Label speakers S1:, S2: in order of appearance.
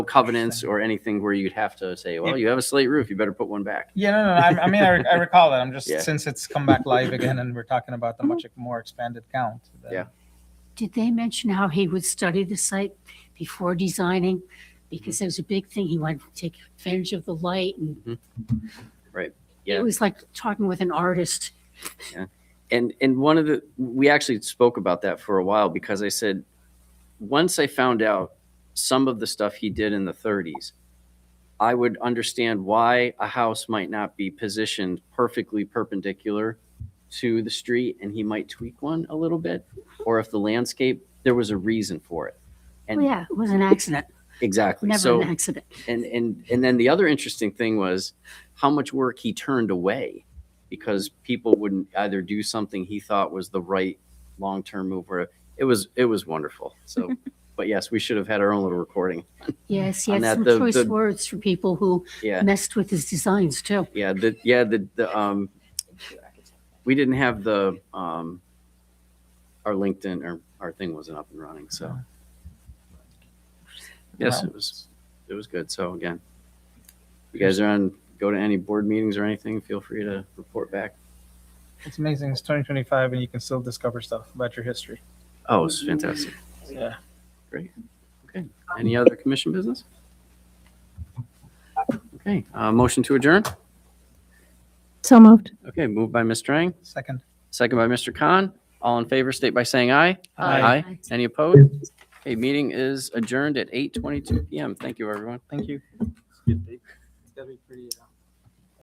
S1: covenants or anything where you'd have to say, well, you have a slate roof, you better put one back.
S2: Yeah, no, no, no, I, I mean, I, re- I recall that. I'm just
S1: Yeah.
S2: since it's come back live again, and we're talking about the much more expanded count. then-
S1: Yeah.
S3: Did they mention how he would study the site before designing? Because there was a big thing, he wanted to take advantage of the light and.
S1: Mm-hmm. Right, yeah.
S3: It was like talking with an artist.
S1: And and one of the we actually spoke about that for a while because I said once I found out some of the stuff he did in the 30s, I would understand why a house might not be positioned perfectly perpendicular to the street and he might tweak one a little bit or if the landscape there was a reason for it.
S3: Oh,
S1: And
S3: yeah, it was an accident,
S1: exactly.
S3: never
S1: so
S3: an accident.
S1: and and and then the other interesting thing was how much work he turned away because people wouldn't either do something he thought was the right long-term move or it was it was wonderful so but yes we should have had our own little recording
S3: Yes, he
S1: On that,
S3: had some
S1: the-
S3: choice
S1: the-
S3: words for people who
S1: yeah
S3: messed with his designs too.
S1: yeah the yeah the, the um we didn't have the um our linkedin or our thing wasn't up and running so yes it was it was good so again you guys are on go to any board meetings or anything feel free to report back
S2: It's amazing. It's 2025, and you can still discover stuff about your history.
S1: Oh, it's fantastic.
S2: Yeah.
S1: Okay. Any other commission business? Okay, uh, motion to adjourn.
S4: So moved.
S1: Okay, moved by Ms. Strang,
S2: Second.
S1: second by Mr. Khan. All in favor, state by saying aye.
S2: Aye.
S1: Aye. Any opposed? Okay, meeting is adjourned at eight twenty-two PM. Thank you, everyone.
S2: Thank you. It's gotta be pretty. Uh,